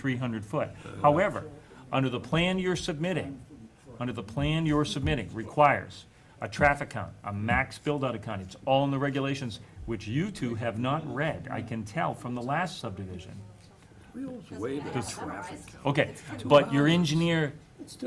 300 foot. However, under the plan you're submitting, under the plan you're submitting requires a traffic count, a max build-out account. It's all in the regulations, which you two have not read, I can tell from the last subdivision. Wheels way to traffic. Okay, but your engineer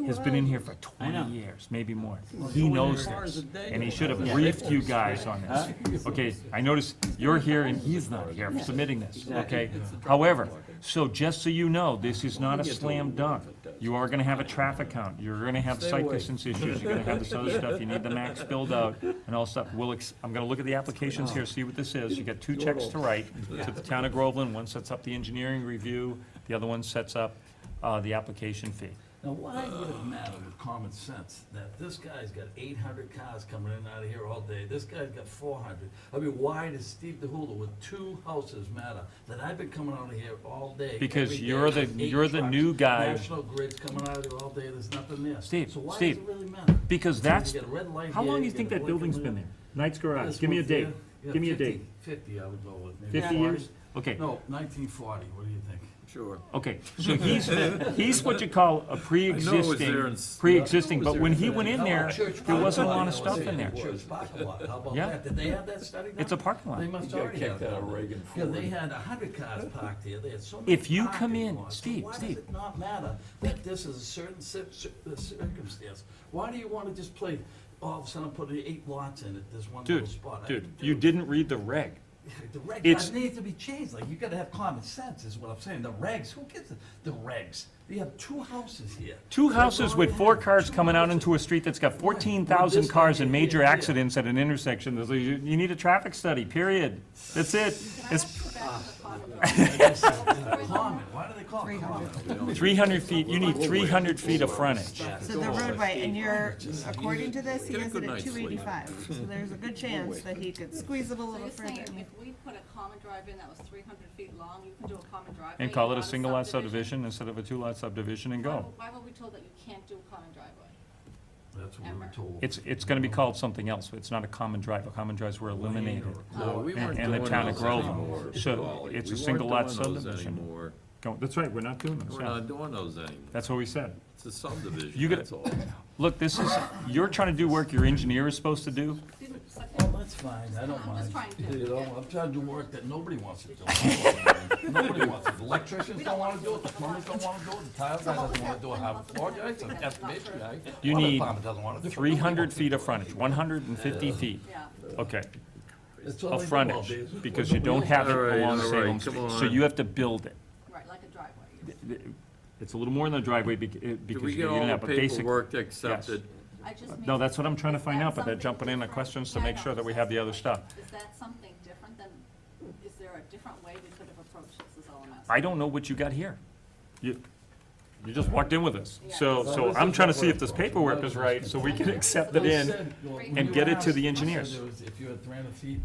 has been in here for 20 years, maybe more. He knows hours a this, day and he going should have briefed you guys on this. Okay, I notice you're here and he's not here for submitting this, okay? However, so just so you know, this is not a slam dunk. You are gonna have a traffic count, you're gonna have site away. distance issues, you're gonna have this other stuff, you need the max build out and all stuff. We'll, ex- I'm gonna look at the applications here, see what this is. You got two checks to write to the town of Groveland. One sets up the engineering review, the other one sets up, uh, the application fee. Now, why would it matter with common sense that this guy's got eight hundred cars coming in and out of here all day, this guy's got four hundred? I mean, why does Steve DeHulu with two houses matter, that I've been coming out of here all day? Because every day, you're the- eight you're the trucks, new guy. National Grid's coming out of there all day, there's nothing there. Steve, So why does Steve, it really matter? Because that's, You get a red light how here, long do you get think a that blink building's coming been there? in. Knight's Garage, This give me a one's date, there, yeah, give me a 50 date. Fifty, I would go with, maybe. Fifty 40. years? Okay, No, nineteen forty, what do you think? Sure. okay, so he's, he's what you call a there pre-existing, in s- pre-existing, I know but it was there when in he went in How there, about church there wasn't a parking lot lot? of stuff in there. Church parking lot, how about Yeah. that? Did they have that study done? It's a parking lot. They must got already have kicked that. out of Reagan Yeah, Ford. they had a hundred cars parked there, they had so many If you come parking in- lots. So Steve, Why Steve. does it not matter that this is a certain cir- cir- uh, circumstance? Why do you wanna just play, all of a sudden put eight lots in at this one little Dude, spot? I- dude, you didn't read the reg. The It's- regs, that needs to be changed, like, you gotta have common sense, is what I'm saying, the regs, who gets the, the regs? You have two houses here. Two That's houses all with you four have, cars two coming out houses. into a street that's got fourteen Well, thousand this cars and idea major here. accidents at an intersection, There's a- you, you need a traffic study, period. That's it. It's Common, why do they call it common? three hundred feet, you need three hundred feet of frontage. So the roadway, and you're, according to this, he has it at two eighty-five, so there's a good chance that he could squeeze it a So little you're saying further. if we put a common drive in that was three hundred feet long, you can do a common driveway? And call it not a single lot subdivision instead of a two lot subdivision and Why go. were- Why were we told that you can't do a common driveway? That's what we were Ever. told. It's, it's gonna be called something else, it's not a common drive, a common drives were eliminated. No, we And- weren't and the doing town of those Groveland. anymore, So Wally. it's a We weren't single lot doing those subdivision. anymore. Go- That's right, we're not doing We're this, not doing those anymore. that's what we said. It's a subdivision, You gotta- that's all. Look, this is, you're trying to do work your engineer is supposed to do, Didn't- so- Well, that's fine, I don't I'm mind. just trying to- You know, I'm trying to do work that nobody wants to do. Nobody wants it, electricians don't wanna do it, the plumbers don't wanna do it, the tile guy doesn't wanna do it, how, or guy, it's an estimation guy. You water need department doesn't wanna do it. three hundred feet of frontage, one hundred and fifty feet, Yeah. okay, That's all of they do all frontage, day. because you don't have it All right, along all right, Salem come Street, so on. you have to build it. Right, like a driveway. It's a little more than a driveway bec- eh, Did because we you get can get all it the out, but basically. paperwork accepted? I just mean. No, that's what I'm trying to is find that out, but they're something jumping in on different? questions to Yeah, I make know, sure that we so have the that's other the stuff. point. Is that something different than, is there a different way we could have approached this is all I'm asking? I don't know what you got here. You, you just walked in with us. So, Yeah. so I'm trying to see if this paperwork is right, so we can accept it They in. said, well, and when you get it to asked, the I said engineers. there was- If you had three hundred feet,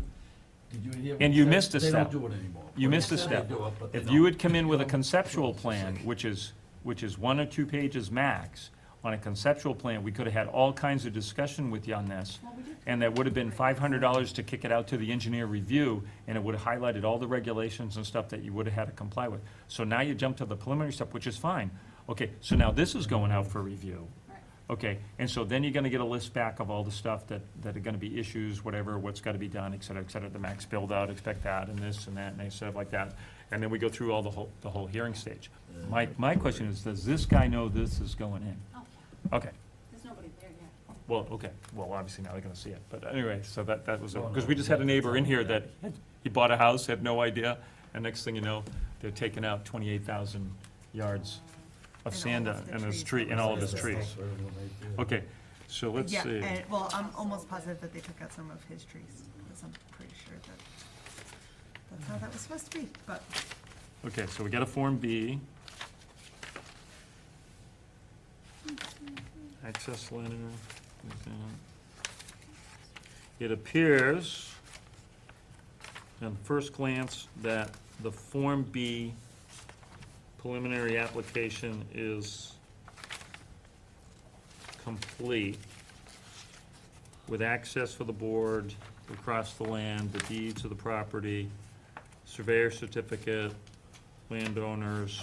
did you hear? what And I you said? missed a step. They don't do it anymore. You Well, missed a they said they step. do it, but they If you don't. had come in with a conceptual plan, which is, which is one or two pages max, on a conceptual plan, we could have had all kinds of discussion with you on this. Well, we did. And that would have been five hundred dollars to kick it out to the engineer review, and it would have highlighted all the regulations and stuff that you would have had to comply with. So now you jump to the preliminary stuff, which is fine. Okay, so now this is going out for review. Right. Okay, and so then you're gonna get a list back of all the stuff that, that are gonna be issues, whatever, what's gotta be done, et cetera, et cetera, the max build-out, expect that, and this and that, and stuff like that. And then we go through all the whole, the whole hearing stage. My, my question is, does this guy know this is going in? Oh, yeah, Okay, there's nobody there yet. well, okay, well, obviously now they're gonna see it, but anyway, so that, that was, because we just had a neighbor in here that, had- he bought a house, had no idea, and next thing you know, they're taking out twenty-eight thousand yards of And sand all of the and his trees. tree, and all of his trees. Whatever they do. Okay, so let's see. Yeah, and, well, I'm almost positive that they took out some of his trees, because I'm pretty sure that, that's how that was supposed to be, but Okay, so we got a Form B. Access letter. there's that. It appears, on first glance, that the Form B preliminary application is complete with access for the board across the land, the deeds of the property, surveyor certificate, landowners,